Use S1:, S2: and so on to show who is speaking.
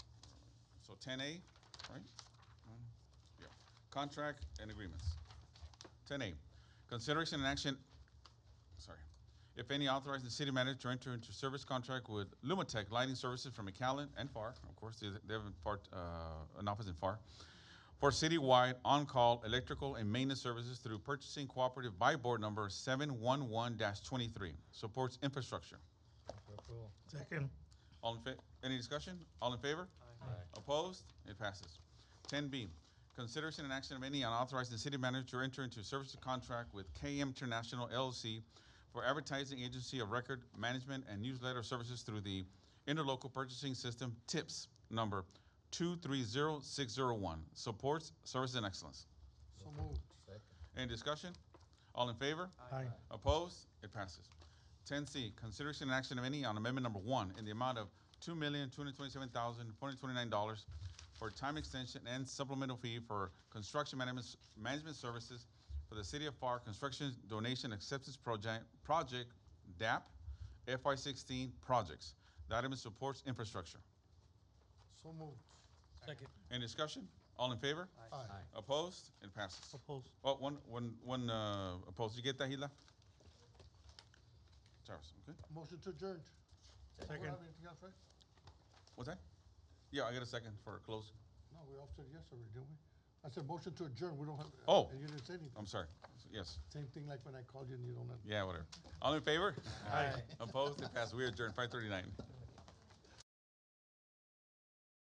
S1: ten A, right? Yeah, contract and agreements. Ten A, consideration and action, sorry. If any, authorize the city manager to enter into service contract with Lumatech Lighting Services from McAllen and FAR, of course, they they have a part, uh, an office in FAR, for citywide on-call electrical and maintenance services through purchasing cooperative by board number seven one one twenty-three, supports infrastructure.
S2: Second.
S1: All in fa- any discussion? All in favor? Opposed? It passes. Ten B, consideration and action of any on authorizing the city manager to enter into a service contract with KM International LLC for advertising agency of record management and newsletter services through the interlocal purchasing system TIPS number two three zero six zero one, supports service and excellence.
S3: So moved.
S1: Any discussion? All in favor?
S2: Aye.
S1: Opposed? It passes. Ten C, consideration and action of any on amendment number one in the amount of two million, two hundred twenty-seven thousand, four hundred twenty-nine dollars for time extension and supplemental fee for construction management, management services for the City of FAR Construction Donation Acceptance Project, Project DAP FY sixteen projects. The item supports infrastructure.
S3: So moved.
S2: Second.
S1: Any discussion? All in favor?
S3: Aye.
S1: Opposed? It passes.
S2: Opposed.
S1: Oh, one, one, one, uh, opposed. You get that, Hila? Charles, okay?
S3: Motion to adjourn. We don't
S2: Second.
S3: have anything else, right?
S1: What's that? Yeah, I got a second for a close.
S3: No, we all said yes already, didn't we? I said motion to adjourn, we don't have.
S1: Oh.
S3: And you didn't say anything.
S1: I'm sorry. Yes.
S3: Same thing like when I called you and you don't let.
S1: Yeah, whatever. All in favor? Aye. Opposed? It passed. We adjourned five thirty-nine.